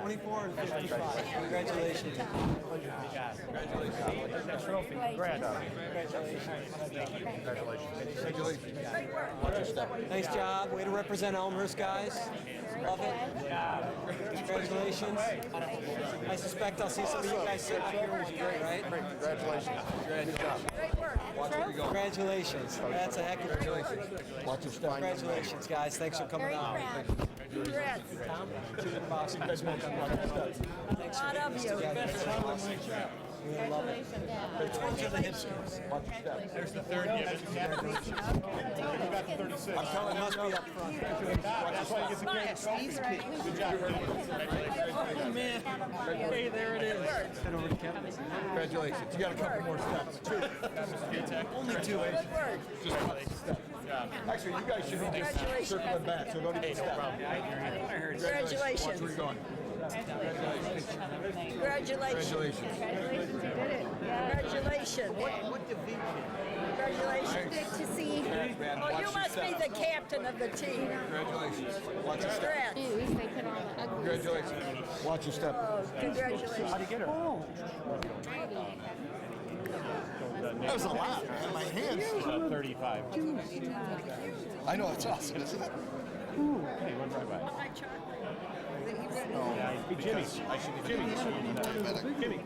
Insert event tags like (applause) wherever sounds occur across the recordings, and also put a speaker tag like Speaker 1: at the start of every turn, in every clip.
Speaker 1: 44 and 55. Congratulations. Nice job. Way to represent Elmhurst, guys. Love it. Congratulations. I suspect I'll see some of you guys sitting up here, which is great, right?
Speaker 2: Great work.
Speaker 1: Congratulations. That's a heck of a
Speaker 3: Watch your step.
Speaker 1: Congratulations, guys. Thanks for coming
Speaker 2: Very
Speaker 1: out.
Speaker 2: proud. Congrats.
Speaker 1: Tom, Junior Boss, Thanks for
Speaker 2: Proud of you.
Speaker 3: Watch your step.
Speaker 4: There's the third given.
Speaker 3: I'm telling you, no,
Speaker 1: up front.
Speaker 4: That's why he gets a great trophy. Good job,
Speaker 2: Hey, there it is.
Speaker 3: congratulations. You got a couple more steps. Two.
Speaker 4: Only two.
Speaker 2: Good work.
Speaker 3: Actually, you guys should be just
Speaker 2: Congratulations.
Speaker 3: circling back, so don't even step. Watch where
Speaker 2: Congratulations.
Speaker 3: you're going.
Speaker 2: Congratulations.
Speaker 3: Congratulations.
Speaker 5: Congratulations, you did it.
Speaker 2: Congratulations. What Congratulations.
Speaker 5: Good to see you.
Speaker 2: Oh, you must be the captain of the team.
Speaker 3: Congratulations. Watch your step.
Speaker 2: Congrats.
Speaker 5: Jeez, they put on the ugly
Speaker 3: Congratulations. Watch your step.
Speaker 2: Oh, Congratulations.
Speaker 3: That was a lot. man. My hands.
Speaker 4: Uh, 35.
Speaker 3: I know, it's awesome, isn't it?
Speaker 4: Hey, one right by.
Speaker 2: My chocolate.
Speaker 4: Hey, Jimmy. I should Jimmy. Jimmy.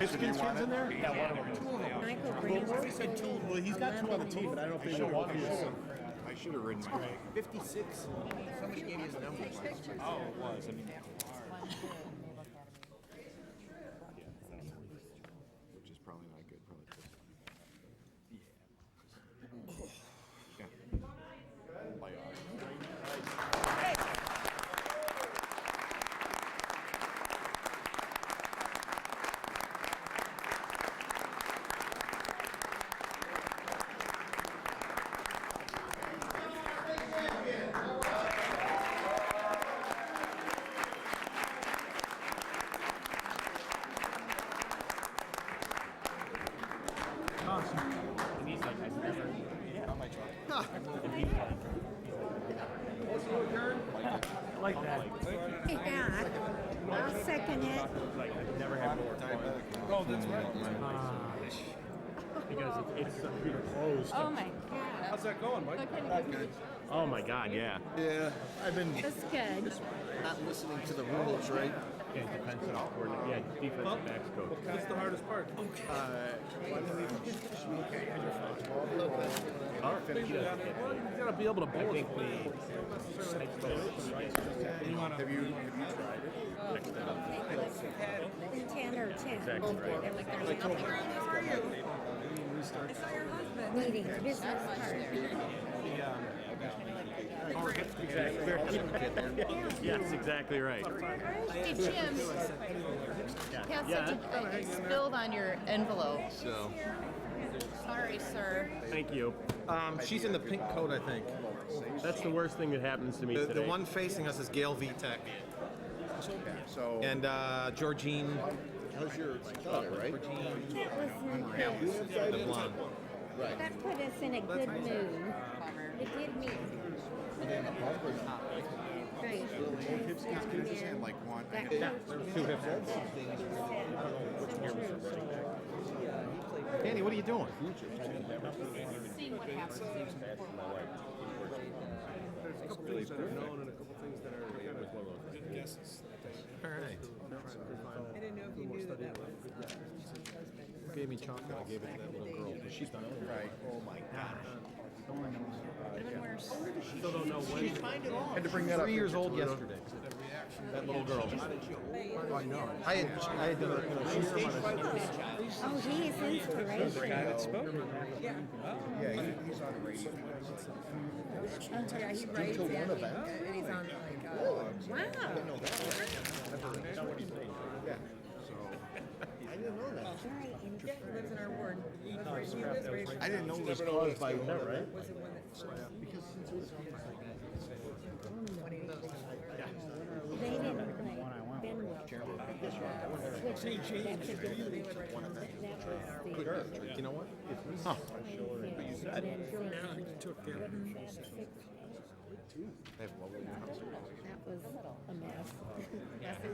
Speaker 4: His skin's in there? Yeah, one of them.
Speaker 2: Michael brings
Speaker 4: He said two. Well, he's got two on the team, but I don't think they're one. It
Speaker 3: I should have ridden my way.
Speaker 6: Fifty-six. Somebody gave me his number.
Speaker 2: pictures.
Speaker 4: Oh, was. I mean,
Speaker 3: Which is probably not good, probably.
Speaker 4: and he's like, I never. Yeah. Not my truck. I like that.
Speaker 5: Yeah, I'll second it.
Speaker 4: Like, I've never had more time.
Speaker 3: Oh, that's right.
Speaker 4: Because it's, it's closed.
Speaker 5: Oh my God. How's that going, Mike?
Speaker 4: Oh my god, yeah.
Speaker 6: Yeah, I've been
Speaker 5: That's good.
Speaker 6: not listening to the rules, right?
Speaker 4: Yeah, defensive coordinator. Yeah, defensive backs coach.
Speaker 7: What's the hardest part?
Speaker 4: You gotta be able to bowl. I think the.
Speaker 6: Have you, have you tried it?
Speaker 5: Ten or ten.
Speaker 4: Exactly right.
Speaker 5: Meeting, business card.
Speaker 4: (laughs) Yes, exactly right.
Speaker 8: Hey, Jim, you have such a, it spilled on your envelope.
Speaker 3: So.
Speaker 8: Sorry, sir.
Speaker 4: Thank you.
Speaker 6: Um, she's in the pink coat, I think.
Speaker 4: That's the worst thing that happens to me
Speaker 6: The,
Speaker 4: today.
Speaker 6: the one facing us is Gail Vitek.
Speaker 3: So.
Speaker 6: And, uh, Georgine,
Speaker 3: How's your daughter, right?
Speaker 5: That was nice.
Speaker 6: the blonde.
Speaker 5: That put us in a good mood. It did me. Right.
Speaker 3: Like one.
Speaker 5: That was-
Speaker 6: Two hips. Danny, what are you doing?
Speaker 8: Seeing what happens.
Speaker 7: There's a couple things that are known and a couple things that are kind of
Speaker 6: All right.
Speaker 7: I didn't know if you knew that.
Speaker 6: uh,
Speaker 7: uh,
Speaker 6: Gave me chocolate, I gave it to that little girl. She's not right. Oh my gosh.
Speaker 4: Still don't know when.
Speaker 3: Had to bring that up.
Speaker 6: Three years old yesterday. That little girl. I had, I had, to- you know, she's from a-
Speaker 5: Oh, he is inspirational.
Speaker 3: Yeah, he- he's on the radio.
Speaker 2: Yeah, he writes and he- and he's on like, uh, wow.
Speaker 3: I didn't know that.
Speaker 5: Very interesting.
Speaker 2: Yeah, he lives in our ward. He was raised- he was raised-
Speaker 3: I didn't know it was caused by one of them.
Speaker 2: was the one that first-
Speaker 5: They didn't like Ben Wilson. Switch it. That's a good one. That was the-
Speaker 6: You know what?
Speaker 5: That was a mess.